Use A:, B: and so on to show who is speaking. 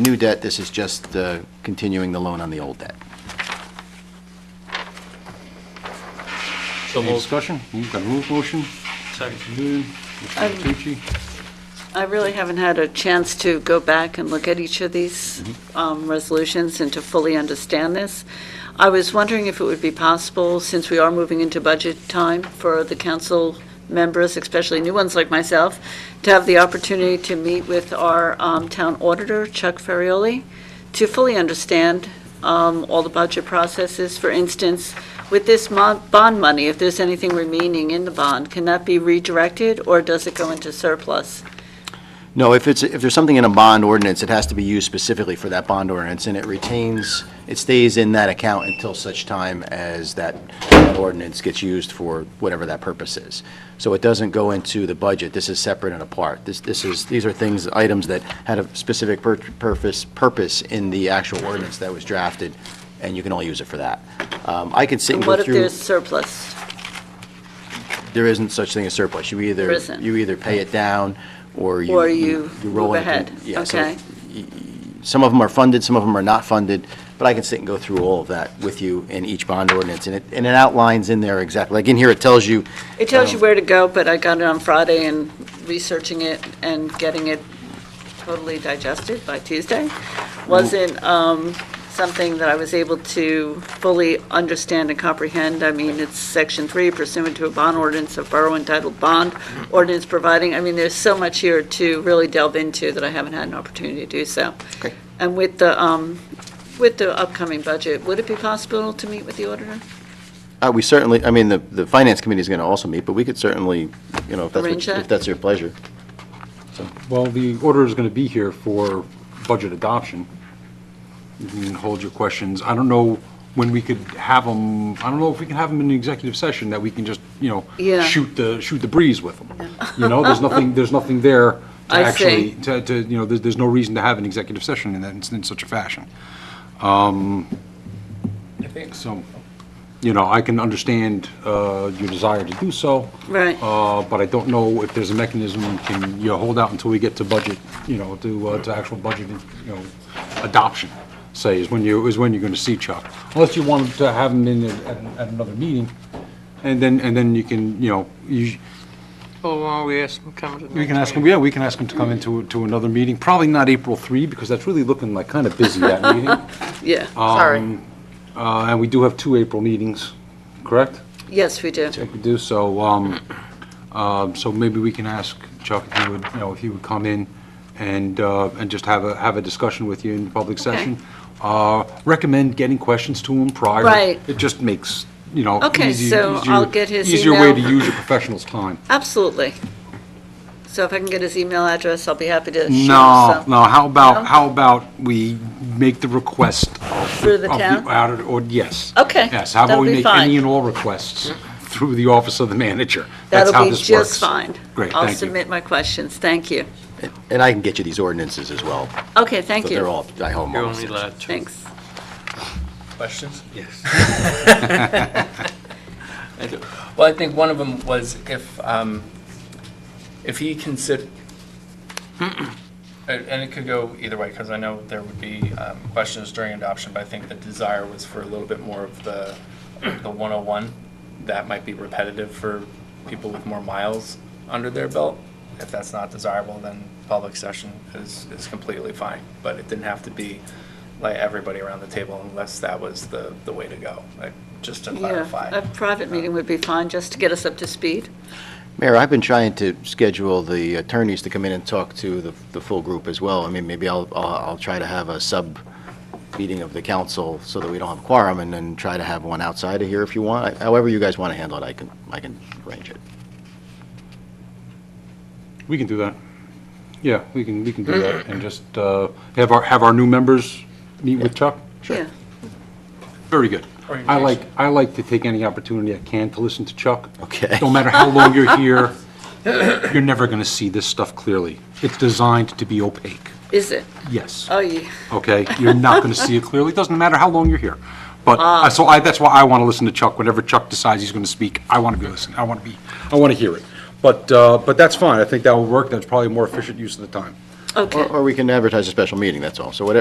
A: new debt, this is just uh, continuing the loan on the old debt.
B: So
A: Any
B: moved.
A: discussion? You've got a move motion?
B: Second.
A: Good.
C: Um,
A: Mr. Tucci?
C: I really haven't had a chance to go back and look at each of these um, resolutions and to fully understand this. I was wondering if it would be possible, since we are moving into budget time for the council members, especially new ones like myself, to have the opportunity to meet with our um, town auditor, Chuck Ferrioli, to fully understand um, all the budget processes. For instance, with this mon- bond money, if there's anything remaining in the bond, can that be redirected, or does it go into surplus?
A: No, if it's, if there's something in a bond ordinance, it has to be used specifically for that bond ordinance, and it retains, it stays in that account until such time as that ordinance gets used for whatever that purpose is. So it doesn't go into the budget, this is separate and apart. This, this is, these are things, items that had a specific pur- purpose, purpose in the actual ordinance that was drafted, and you can only use it for that. Um, I could sit and
C: What
A: go
C: if
A: through,
C: there's surplus?
A: there isn't such thing as surplus, you either,
C: There isn't.
A: you either pay it down, or you.
C: Or you
A: roll
C: move
A: it into-
C: ahead?
A: yeah, so
C: Okay,
A: Some of them are funded, some of them are not funded, but I can sit and go through all of that with you in each bond ordinance, and it, and it outlines in there exactly, like in here, it tells you,
C: it tells you where to go, but I got it on Friday and researching it and getting it totally digested by Tuesday wasn't um, something that I was able to fully understand and comprehend. I mean, it's section three pursuant to a bond ordinance of borough entitled bond ordinance providing. I mean, there's so much here to really delve into that I haven't had an opportunity to do so.
A: Okay.
C: And with the, um, with the upcoming budget, would it be possible to meet with the auditor?
A: uh, we certainly, I mean, the, the finance committee is gonna also meet, but we could certainly, you know, if that's,
C: Arrange
A: what-
C: that?
A: if that's your pleasure.
D: Well, the order is going to be here for budget adoption. You can hold your questions. I don't know when we could have them, I don't know if we can have them in an executive session that we can just, you know,
C: Yeah.
D: shoot the, shoot the breeze with them. You know, there's nothing, there's nothing there to
C: I see.
D: actually, to, to, you know, there's, there's no reason to have an executive session in that, in such a fashion. Um, So, you know, I can understand uh, your desire to do so.
C: Right.
D: Uh, But I don't know if there's a mechanism, can you hold out until we get to budget, you know, to, uh, to actual budget, you know, adoption, say, is when you, is when you're going to see Chuck. Unless you want to have him in at, at another meeting, and then, and then you can, you know, you,
B: Well, why don't we ask them to come to the
D: we can
B: next
D: ask him, yeah, we can ask him to come into, to another meeting, probably not April 3, because that's really looking like kind of busy, that meeting.
C: Yeah, sorry.
D: Uh, And we do have two April meetings, correct?
C: Yes, we do.
D: I think we do, so, um, um, so maybe we can ask Chuck if he would, you know, if he would come in and, uh, and just have a, have a discussion with you in public session. Uh, Recommend getting questions to him prior.
C: Right.
D: It just makes, you know.
C: Okay,
D: easy-
C: so
D: easier-
C: I'll get his
D: Easier way to
C: email.
D: use a professional's time.
C: Absolutely. So if I can get his email address, I'll be happy to share
D: No,
C: some.
D: no, how
C: No?
D: about, how about we make the request of.
C: Through the
D: of
C: town?
D: outer- Or, yes.
C: Okay,
D: Yes, how about
C: that'll
D: we
C: be
D: make any
C: fine.
D: and all requests through the office of the manager? That's how
C: That'll be
D: this
C: just
D: works.
C: fine.
D: Great,
C: I'll
D: thank you.
C: submit my questions, thank you.
A: And I can get you these ordinances as well.
C: Okay, thank
A: They're
C: you.
A: all, I hope.
B: You're only allowed two
C: Thanks.
E: Questions?
B: Yes.
E: I do. Well, I think one of them was if, um, if he consider, and and it could go either way, because I know there would be um, questions during adoption, but I think the desire was for a little bit more of the, the 101. That might be repetitive for people with more miles under their belt. If that's not desirable, then public session is, is completely fine. But it didn't have to be like everybody around the table unless that was the, the way to go, like, just to clarify.
C: Yeah, a private meeting would be fine, just to get us up to speed.
A: Mayor, I've been trying to schedule the attorneys to come in and talk to the, the full group as well. I mean, maybe I'll, I'll I'll try to have a sub-meeting of the council so that we don't have quorum, and then try to have one outside of here if you want. However you guys want to handle it, I can, I can arrange it.
D: We can do that. Yeah, we can, we can do that, and just uh, have our, have our new members meet with Chuck?
C: Yeah,
D: Very good. I
E: Orientation.
D: like, I like to take any opportunity I can to listen to Chuck.
A: Okay.
D: No matter how long you're here, you're never going to see this stuff clearly. It's designed to be opaque,
C: is it?
D: yes.
C: Oh, yeah,
D: okay? You're not going to see it clearly, it doesn't matter how long you're here. But, uh, so I, that's why I want to listen to Chuck, whenever Chuck decides he's going to speak, I want to be listening, I want to be, I want to hear it. But, uh, but that's fine, I think that will work, that's probably a more efficient use of the time.
C: Okay.
A: Or or we can advertise a special meeting, that's all. So whatever,